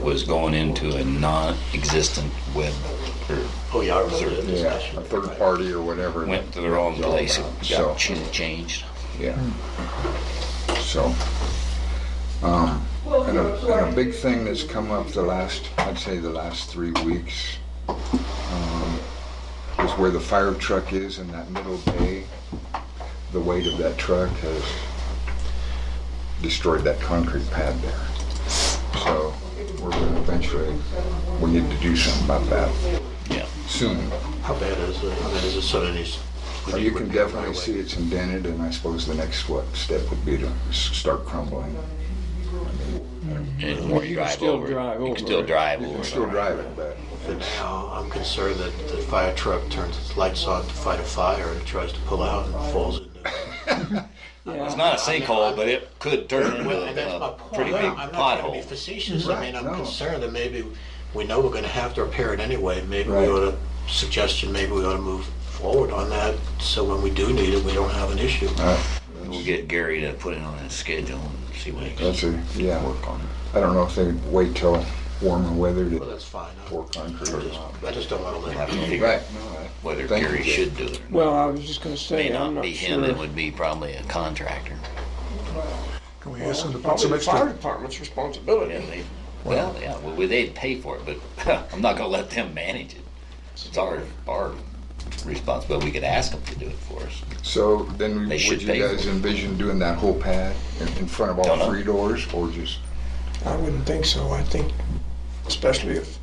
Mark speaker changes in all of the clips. Speaker 1: was going into a non-existent web, or
Speaker 2: Oh, yeah, I remember that
Speaker 3: Yeah,
Speaker 2: discussion.
Speaker 3: a third party or whatever.
Speaker 1: went to the wrong
Speaker 3: It's all
Speaker 1: place, it
Speaker 3: about,
Speaker 1: got
Speaker 3: So,
Speaker 1: ch- changed.
Speaker 3: yeah. So, um, and a, and a big thing that's come up the last, I'd say the last three weeks, um, is where the fire truck is in that middle bay. The weight of that truck has destroyed that concrete pad there. So, we're gonna eventually, we need to do something about that
Speaker 1: Yeah,
Speaker 3: soon.
Speaker 2: How bad is it? How bad is it? So that it's-
Speaker 3: Well, You can definitely see it's indented, and I suppose the next, what, step would be to s- start crumbling.
Speaker 1: and
Speaker 4: You
Speaker 1: or
Speaker 4: can
Speaker 1: you drive
Speaker 4: still
Speaker 1: over
Speaker 4: drive
Speaker 1: it, you
Speaker 4: over
Speaker 1: can still
Speaker 4: it.
Speaker 1: drive
Speaker 3: You
Speaker 1: over
Speaker 3: can
Speaker 1: it.
Speaker 3: still drive it, but
Speaker 2: But now I'm concerned that the fire truck turns its lights on to fight a fire and tries to pull out and falls into.
Speaker 1: It's not a sinkhole, but it could turn into
Speaker 2: Well, and that's my
Speaker 1: a
Speaker 2: point.
Speaker 1: pretty big
Speaker 2: I'm not trying to be
Speaker 1: pothole.
Speaker 2: facetious. I mean,
Speaker 3: Right,
Speaker 2: I'm
Speaker 3: no.
Speaker 2: concerned that maybe we know we're going to have to repair it anyway. Maybe we
Speaker 3: Right.
Speaker 2: ought to, suggestion, maybe we ought to move forward on that so when we do need it, we don't have an issue.
Speaker 1: We'll get Gary to put it on his schedule and see what he can
Speaker 3: that's a, yeah,
Speaker 1: work on.
Speaker 3: I don't know if they'd wait till warmer weather
Speaker 2: Well,
Speaker 3: to
Speaker 2: that's fine. I-
Speaker 3: pour concrete or not.
Speaker 2: I just don't want to
Speaker 1: We'll have
Speaker 2: let
Speaker 1: to
Speaker 2: it.
Speaker 1: figure
Speaker 3: Right,
Speaker 1: out
Speaker 3: no, I-
Speaker 1: whether
Speaker 3: Thank you,
Speaker 1: Gary
Speaker 3: Jay.
Speaker 1: should do it. or not.
Speaker 4: Well, I was just gonna
Speaker 1: May
Speaker 4: say, I'm
Speaker 1: not
Speaker 4: not
Speaker 1: be him, it
Speaker 4: sure.
Speaker 1: would be probably a contractor.
Speaker 5: Can we ask them to put
Speaker 4: Probably
Speaker 5: some
Speaker 4: the fire
Speaker 5: extra,
Speaker 4: department's responsibility.
Speaker 1: And they- Well, yeah, well, they'd pay for it, but I'm not gonna let them manage it. It's our, our responsibility. We could ask them to do it for us.
Speaker 3: So then we-
Speaker 1: They
Speaker 3: would
Speaker 1: should
Speaker 3: you
Speaker 1: pay for
Speaker 3: guys
Speaker 1: it.
Speaker 3: envision doing that whole pad in, in front of
Speaker 1: Don't
Speaker 3: all
Speaker 1: know.
Speaker 3: three doors or just?
Speaker 4: I wouldn't think so. I think, especially if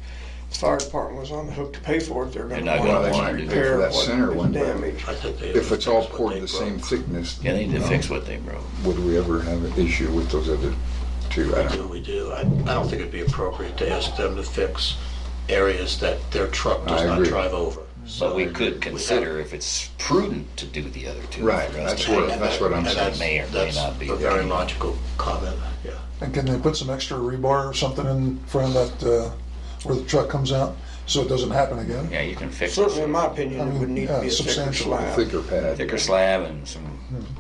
Speaker 4: the fire department was on the hook to pay for it, they're
Speaker 1: They're
Speaker 4: gonna
Speaker 1: not
Speaker 3: Well,
Speaker 4: want
Speaker 3: they
Speaker 1: gonna
Speaker 3: might
Speaker 1: want
Speaker 3: be
Speaker 1: to
Speaker 3: paying
Speaker 1: do
Speaker 3: for
Speaker 4: repair
Speaker 1: it.
Speaker 3: that
Speaker 4: what
Speaker 3: center one, but
Speaker 4: damage.
Speaker 2: I think they-
Speaker 3: if it's all
Speaker 2: that's what
Speaker 3: poured
Speaker 2: they
Speaker 3: the
Speaker 2: broke.
Speaker 3: same thickness,
Speaker 1: Yeah, they need
Speaker 3: you
Speaker 1: to
Speaker 3: know,
Speaker 1: fix what they broke.
Speaker 3: would we ever have an issue with those other two? I
Speaker 2: We
Speaker 3: don't
Speaker 2: do, we do. I, I don't think it'd be appropriate to ask them to fix areas that their truck does
Speaker 3: I
Speaker 2: not
Speaker 3: agree.
Speaker 2: drive over.
Speaker 1: But
Speaker 2: So
Speaker 1: we
Speaker 4: uh,
Speaker 1: could consider if it's prudent to do the other two.
Speaker 3: Right,
Speaker 1: for us
Speaker 3: that's
Speaker 1: to
Speaker 3: what-
Speaker 1: pay.
Speaker 2: and
Speaker 3: that's what I'm
Speaker 2: and
Speaker 3: saying.
Speaker 2: that's-
Speaker 1: May or may
Speaker 2: that's
Speaker 1: not be.
Speaker 2: A very logical comment, yeah.
Speaker 5: and can they put some extra rebar or something in front of that, uh, where the truck comes out, so it doesn't happen again?
Speaker 1: Yeah, you can fix it.
Speaker 4: Certainly, in my opinion, it would need to be a
Speaker 5: Yeah,
Speaker 4: thicker
Speaker 5: substantial,
Speaker 3: know.
Speaker 4: slab.
Speaker 3: Thicker pad.
Speaker 1: Thicker slab and some,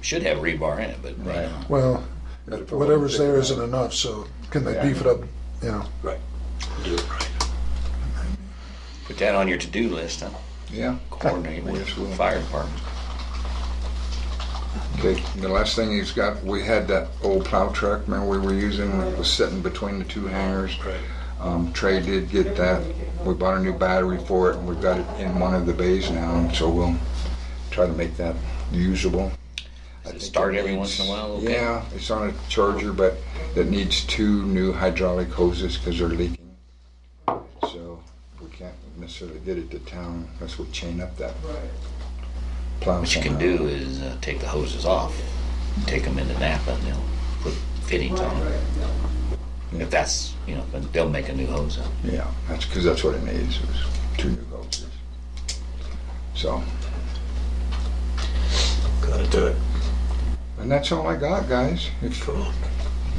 Speaker 1: should have rebar in it, but may
Speaker 3: Right.
Speaker 1: not.
Speaker 5: Well,
Speaker 3: Gotta put one
Speaker 5: whatever's
Speaker 3: thicker
Speaker 5: there
Speaker 3: pad.
Speaker 5: isn't enough, so can they beef it up, you know?
Speaker 2: Right. Do it right.
Speaker 1: Put that on your to-do list, huh?
Speaker 3: Yeah.
Speaker 1: Coordinate with
Speaker 3: Yes, we'll-
Speaker 1: fire department.
Speaker 3: Okay, the last thing he's got, we had that old plow truck, man, we were using, it was sitting between the two hangars. Um, Trey did get that, we bought a new battery for it, and we've got it in one of the bays now, and so we'll try to make that usable.
Speaker 1: Does it
Speaker 3: I think
Speaker 1: start every once
Speaker 3: needs-
Speaker 1: in a while? Okay.
Speaker 3: Yeah, it's on a charger, but it needs two new hydraulic hoses, cause they're leaking. So, we can't necessarily get it to town, unless we chain up that plow
Speaker 1: What you can
Speaker 3: somehow.
Speaker 1: do is uh, take the hoses off, take them into Napa, and they'll put fittings on them. If that's, you know, then they'll make a new hose up.
Speaker 3: Yeah, that's because that's what it needs. It was two new hoses. So,
Speaker 2: Gotta do it.
Speaker 3: and that's all I got, guys. If you
Speaker 2: Cool.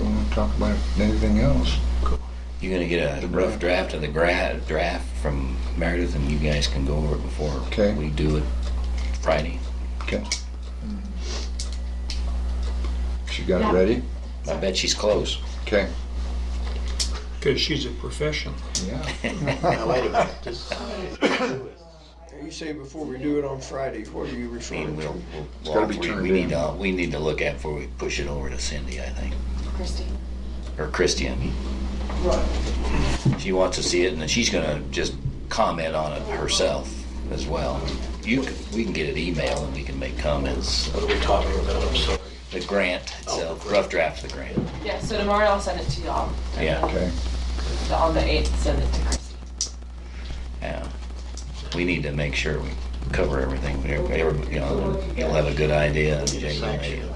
Speaker 3: want to talk about anything else,
Speaker 1: You're gonna get a rough draft of the gra- draft from Meredith, and you guys can go over it before
Speaker 3: Okay.
Speaker 1: we do it Friday.
Speaker 3: okay. She got
Speaker 6: Yeah.
Speaker 3: it ready.
Speaker 1: I bet she's close.
Speaker 3: Okay.
Speaker 7: Because she's a professional.
Speaker 3: Yeah.
Speaker 2: Now, wait a minute. This
Speaker 4: You say before we do it on Friday, what are you
Speaker 1: I mean,
Speaker 4: referring
Speaker 1: we'll,
Speaker 4: to?
Speaker 1: we'll,
Speaker 3: gotta
Speaker 1: all
Speaker 3: be
Speaker 1: three-
Speaker 3: turned
Speaker 1: we
Speaker 3: in.
Speaker 1: need to we need to look at before we push it over to Cindy, I think,
Speaker 6: Christie.
Speaker 1: or Christie. I mean, she wants to see it, and then she's gonna just comment on it herself as well. You can, we can get an email and we can make comments.
Speaker 2: What are we talking about? I'm sorry.
Speaker 1: The grant itself, rough draft of the grant.
Speaker 6: Yeah, so tomorrow I'll send it to y'all. And
Speaker 1: Yeah.
Speaker 6: then
Speaker 3: Okay.
Speaker 6: the- On the 8th, send it to Christie.
Speaker 1: Yeah. We need to make sure we cover everything. Everybody, you know, you'll have a good idea. and Jay will make-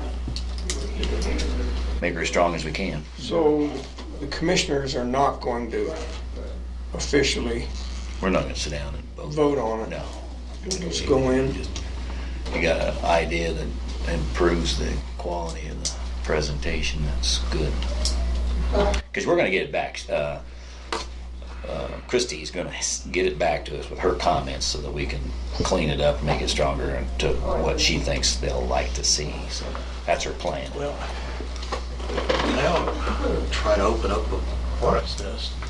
Speaker 1: Make her as strong as we can.
Speaker 4: So the commissioners are not going to officially
Speaker 1: We're not gonna sit down and vote.
Speaker 4: vote on it.
Speaker 1: No.
Speaker 4: Just go in.
Speaker 1: You got an idea that improves the quality of the presentation, that's good. Because we're gonna get it back, uh, uh, Christie's gonna s- get it back to us with her comments so that we can clean it up, make it stronger and to what she thinks they'll like to see, so that's her plan.
Speaker 2: Well, now, I'm trying to open up a hornet's nest.